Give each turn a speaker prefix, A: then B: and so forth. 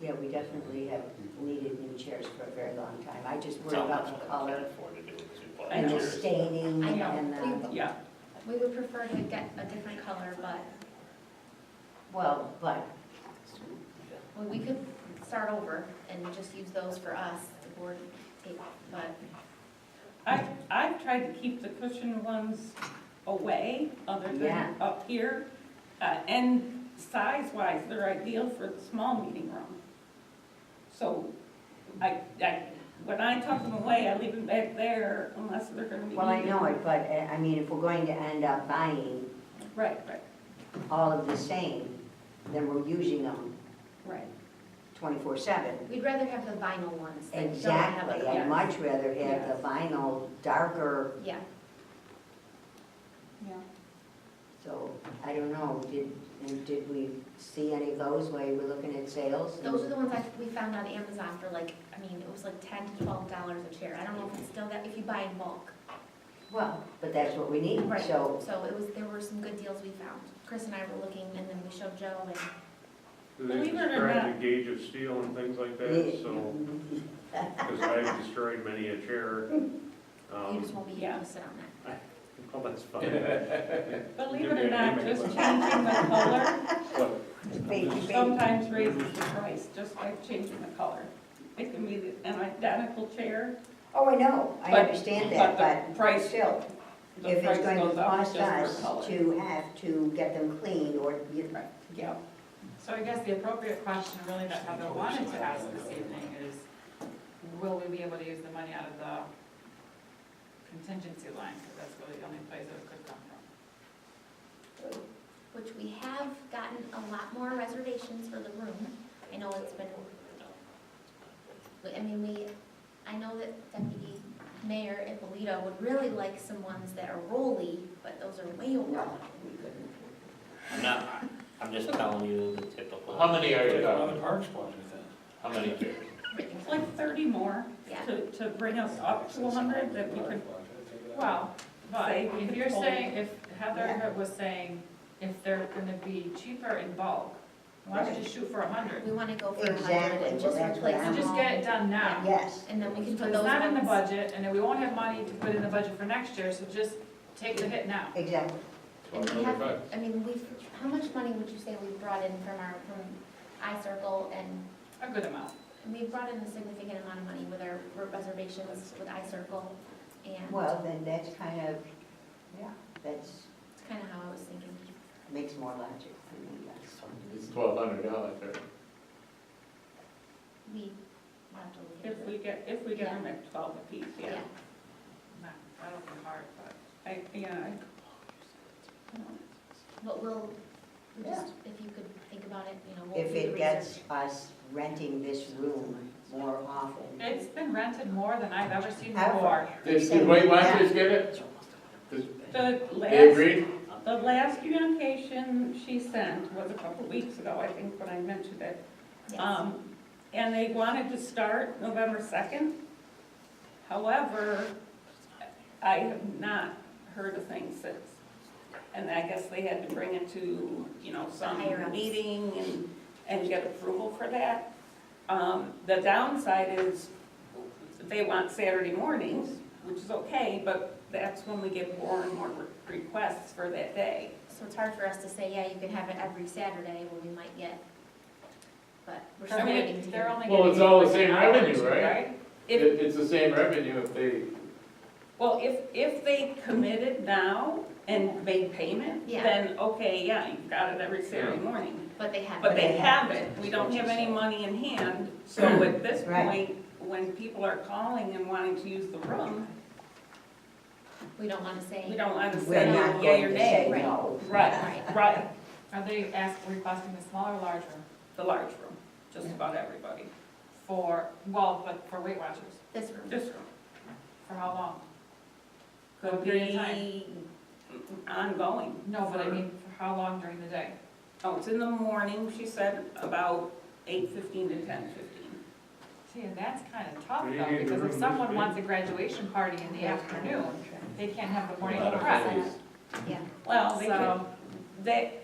A: yeah, we definitely have needed new chairs for a very long time. I just worry
B: How
A: about
B: much
A: the
B: I can't
A: color
B: afford to do with two
C: I
A: and
C: know.
A: the
B: volunteers.
A: staining
C: I know.
A: and, uh,
C: We-
D: Yeah,
C: We would prefer to get a different color, but
A: well, but
C: we- we could start over and just use those for us, the board, but
D: I, I've tried to keep the cushion ones away, other
A: Yeah.
D: than up here. Uh, And size-wise, they're ideal for the small meeting room. So I, I, when I tuck them away, I leave them back there unless they're gonna be.
A: Well, I
D: needed.
A: know it, but, uh, I mean, if we're going to end up buying
D: Right, right,
A: all of the same, then we're using them
D: right.
A: twenty-four seven.
C: we'd rather have the vinyl ones that don't have a
A: Exactly, I'd
C: color.
A: much rather have the vinyl darker,
C: Yeah,
D: Yeah.
A: so, I don't know, did, and did we see any of those while you were looking at sales?
C: those are the ones I, we found on Amazon for like, I mean, it was like ten to twelve dollars a chair. I don't know if it's still that, if you buy in bulk.
A: Well, but that's what we need,
C: Right,
A: so,
C: so it was, there were some good deals we found. Chris and I were looking and then we showed Joe and
E: They
D: Believe it or
E: describe
D: not.
E: the gauge of steel and things like that, so,
A: Mm-hmm.
E: because I've destroyed many a chair.
C: you just
E: Um,
C: won't be
D: Yeah.
C: able to sit on that.
E: Well, that's fine.
D: Believe
E: Give
D: it
E: me
D: or
E: a
D: not,
E: name and
D: just
E: a
D: changing the color
E: Well,
A: Baby, baby.
D: sometimes raises the price, just by changing the color. It can be an identical chair,
A: Oh, I know, I
D: But-
A: understand
D: but
A: that,
D: the
A: but
D: price
A: still,
D: the
A: if it's
D: price
A: going to
D: goes up just
A: cost
D: for color.
A: us to have to get them cleaned or, you-
D: Right, yeah.
F: So I guess the appropriate question really that Heather wanted to ask this evening is, will we be able to use the money out of the contingency line? Because that's really the only place that it could come from.
C: which we have gotten a lot more reservations for the room. I know it's been, but, I mean, we, I know that Deputy Mayor Ippolito would really like some ones that are rolly, but those are way over.
B: I'm not, I'm just telling you the typical.
G: How many are you uh,
B: How
G: on the park squad with that?
B: many chairs?
D: It's like thirty more
C: Yeah.
D: to, to bring us up to hundred that we could,
F: Well, but
D: Say we
F: if
D: could
F: you're
D: hold-
F: saying, if Heather was saying, if they're gonna be cheaper in bulk, why don't you just shoot for a hundred?
C: We wanna go for a hundred
A: Exactly,
C: and
A: well,
C: just
A: that's what
C: replace
A: I'm-
F: So
C: them
F: just
C: all.
F: get it done now.
A: yes.
C: And then we can
F: So
C: put
F: it's
C: those
F: not in the
C: ones,
F: budget, and then we won't have money to put in the budget for next year, so just take the hit now.
A: Exactly.
C: and we have, I mean, we've, how much money would you say we've brought in from our, from iCircle and
F: A good amount.
C: and we've brought in a significant amount of money with our reservations with iCircle and
A: Well, then that's kind of, yeah, that's,
C: it's kinda how I was thinking.
A: makes more logic for me, yes.
G: It's twelve hundred dollars, right?
C: We we'll have to look at
D: if
C: it.
D: we get, if we get them at twelve apiece, yeah.
F: Not- That'll be hard, but.
D: I, yeah, I,
C: But we'll, we
A: Yeah.
C: just, if you could think about it, you know, we'll do
A: If
C: the
A: it
C: research.
A: gets us renting this room more often.
F: It's been rented more than I've ever seen
A: Ever.
F: before.
G: Did, did Weight Watchers get it?
D: the
G: They
D: last,
G: agreed?
D: the last communication she sent was a couple weeks ago, I think, when I mentioned it.
C: Yes.
D: Um, and they wanted to start November second. However, I have not heard a thing since. And I guess they had to bring it to, you know, some
C: Higher ups.
D: meeting and, and get approval for that. Um, the downside is they want Saturday mornings, which is okay, but that's when we get more and more re- requests for that day.
C: So it's hard for us to say, yeah, you can have it every Saturday when we might get, but we're
F: I
C: still waiting to
F: mean, they're
C: hear.
F: only getting.
G: Well, it's all the
F: like
G: same
F: an hour or
G: revenue,
F: two,
G: right? It,
D: If,
G: it's the same revenue if they,
D: well, if, if they committed now and made payment,
C: Yeah.
D: then, okay, yeah, you've got it every Saturday morning.
C: But they have.
D: But
C: it.
D: they haven't, we don't have any money in hand, so at this
A: Right.
D: point, when people are calling and wanting to use the room,
C: We don't wanna say.
D: we don't want to
A: We're
D: say
A: not
D: yay
A: going
D: or
A: to
D: nay.
A: say
C: Right.
A: no.
D: Right, right,
F: Are they ask, requesting the small or large room
D: the large room, just about everybody,
F: for, well, but for Weight Watchers,
C: This room.
D: this room.
F: for how long?
D: Could
F: Period of time.
D: be ongoing.
F: No, but I
D: for-
F: mean, for how long during the day?
D: Oh, it's in the morning, she said, about eight fifteen to ten fifteen.
F: See, and that's kind of tough
G: Do you
F: though,
G: need the
F: because
G: room
F: if
G: this
F: someone
G: big?
F: wants a graduation party in the afternoon, they can't have the morning
G: Not a
F: prep.
G: place.
C: Yeah.
D: Well, they could,
F: So,
D: they,